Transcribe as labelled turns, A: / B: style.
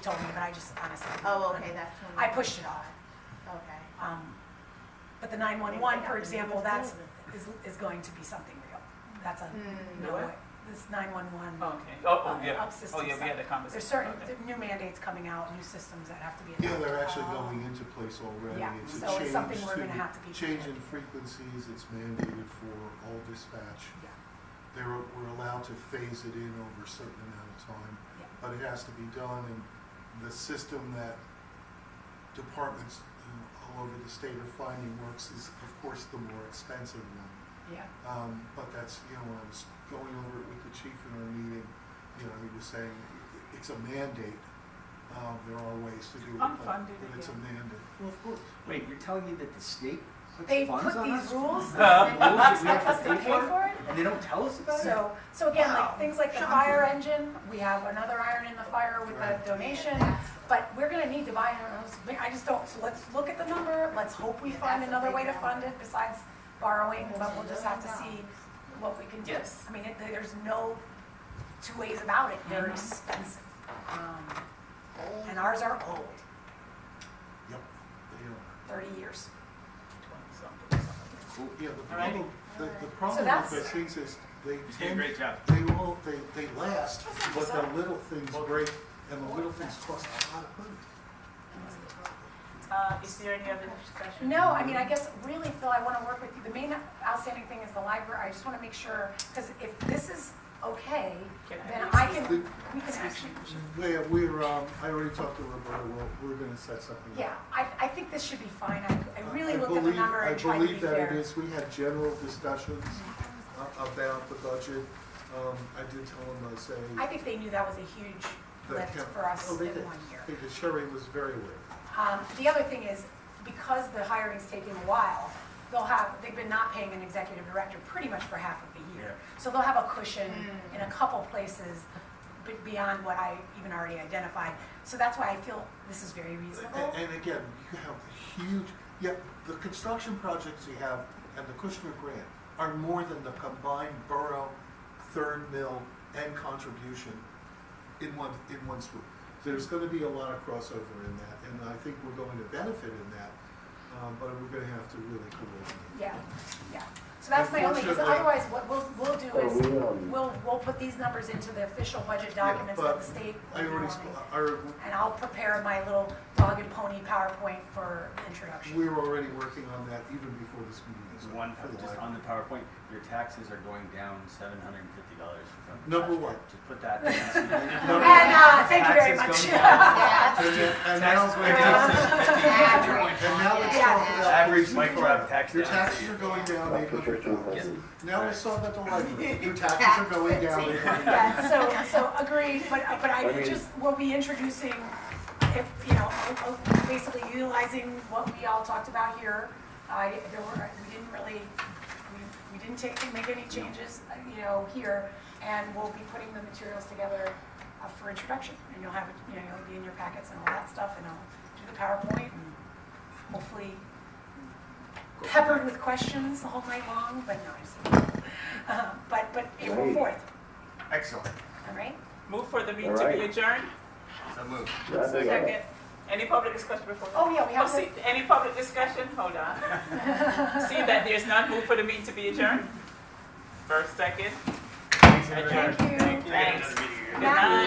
A: told me, but I just honestly.
B: Oh, okay, that's when.
A: I pushed it off.
B: Okay.
A: Um, But the 911, for example, that's, is, is going to be something real. That's a,
B: Hmm.
A: no
C: What?
A: way. This 911.
C: Okay, oh,
A: uh,
C: oh, yeah,
A: up
C: oh,
A: system
C: yeah, we had that
A: stuff. There's
C: conversation
A: certain,
C: about
A: there
C: that.
A: are new mandates coming out, new systems that have to be.
D: Yeah, they're
A: adopted.
D: actually going into place already.
A: Yeah,
D: It's a
A: so it's something
D: change
A: we're
D: to
A: gonna
D: the-
A: have to be
D: Change in
A: prepared.
D: frequencies, it's mandated for all dispatch.
A: Yeah.
D: They're, we're allowed to phase it in over a certain amount of time,
A: Yeah.
D: but it has to be done, and the system that departments you know, all over the state are finding works is, of course, the more expensive one.
A: Yeah,
D: Um, but that's, you know, when I was going over it with the chief in our meeting, you know, he was saying, i- it's a mandate. Um, there are ways to do it, but,
C: Unfunded
D: but it's a
C: again.
D: mandate.
E: Well, of course. Wait, you're telling me that the state puts
A: They
E: funds
A: put
E: on
A: these
E: us?
A: rules
E: Rules
C: and
E: that
A: they
E: we have
A: expect us to pay for it?
E: And they don't tell us about it?
A: So, so again,
E: Wow.
A: like things like the fire engine, we have another iron in the fire with the
D: Right.
A: donation, but we're gonna need to buy, another house. But I just don't, so let's look at the number, let's hope we
B: Yeah,
A: find
B: that's a
A: another
B: big
A: way to
B: number.
A: fund it besides borrowing, but we'll just have to see what we can do.
C: Yes.
A: I mean, it- there's no two ways about it, they're
C: Mhm.
A: expensive. Um, And ours are old,
D: Yep, they are.
A: thirty years.
C: Something, something.
E: Cool.
D: Yeah, the
C: Alrighty.
D: problem, the, the problem
A: that's-
D: with those things is they
C: You did a
D: tend,
C: great job.
D: they all, they, they last,
A: That's not
D: but
A: bizarre.
D: the little things break, and the little things cost a lot of money.
C: Uh, is there any other discussion?
A: No, I mean, I guess really, Phil, I want to work with you. The main outstanding thing is the library. I just want to make sure, because if this is okay,
C: Can I
A: then
C: have
A: I
C: this?
A: can, we can actually,
C: Mm-hmm.
D: We, we're, um, I already talked to Roberta, we're, we're gonna set something up.
A: yeah, I, I think this should be fine. I, I really
D: I
A: looked at the
D: believe-
A: number and tried to be
D: I believe that it
A: fair.
D: is, we had general discussions a- about the budget. Um, I did tell them, I say.
A: I think they knew that was a huge
D: that
A: lift
D: Kemp-
A: for us
D: Oh,
A: in
D: they did.
A: one year.
D: Because Sherry was very aware.
A: Um, the other thing is, because the hiring's taking a while, they'll have, they've been not paying an executive director pretty much for half of the year. So they'll have a cushion in a couple places be- beyond what I even already identified. So that's why I feel this is very reasonable.
D: A- And again, you have a huge, yeah, the construction projects you have and the Kushner grant are more than the combined borough, third mill, and contribution in one, in one swoop. There's gonna be a lot of crossover in that, and I think we're going to benefit in that, um, but we're gonna have to really coordinate.
A: Yeah, yeah. So that's my only, because
D: Unfortunately-
A: otherwise what we'll, we'll do
F: Are
A: is,
F: we, um,
A: we'll, we'll put these numbers into the official budget
D: Yeah,
A: documents that
D: but
A: the state. will
D: I
A: be
D: already,
A: wanting.
D: sp- our,
A: And I'll prepare my little dog and pony PowerPoint for introduction.
D: we were already working on that even before this meeting.
G: It's
D: so
G: one,
D: for the
G: just on
D: library.
G: the PowerPoint, your taxes are going down seven hundred and fifty dollars from.
D: Number
G: last year.
D: one.
G: Just put that. down.
D: Number-
A: And, uh, thank you very much.
G: Taxes going down.
B: Yeah.
D: And then- and
G: Taxes
D: now,
G: going down.
B: Average.
D: and now let's
A: Yeah.
D: talk about.
G: Average
D: these
G: micro
D: products.
G: tax
D: Your
G: down.
D: taxes are going down eight
F: That's what you're
D: hundred dollars.
F: doing.
D: Now let's talk about the library. Your taxes are going down eight hundred.
A: Yeah, so, so agreed, but, but
F: I
A: I
F: mean-
A: just, we'll be introducing, if, you know, o- o- basically utilizing what we all talked about here. Uh, I, there were, we didn't really, we, we didn't take, make any changes, uh, you know, here, and we'll be putting the materials together uh, for introduction, and you'll have, it, you know, it'll be in your packets and all that stuff, and I'll do the PowerPoint, and hopefully peppered with questions all night long, but no, I'm just, uh, but, but April
F: Great.
A: fourth,
D: Excellent.
A: all right?
C: Move for the meeting to
F: Alright.
C: be adjourned?
G: So move.
F: That's it.
C: Second. Any public discussion before?
A: Oh, yeah, we
C: Oh,
A: have to.
C: see, any public discussion? Hold on. See that there's none, move for the meeting to be adjourned? First, second? Adjourned.
A: Thank you.
C: Thanks. Good
A: Matt?
C: night.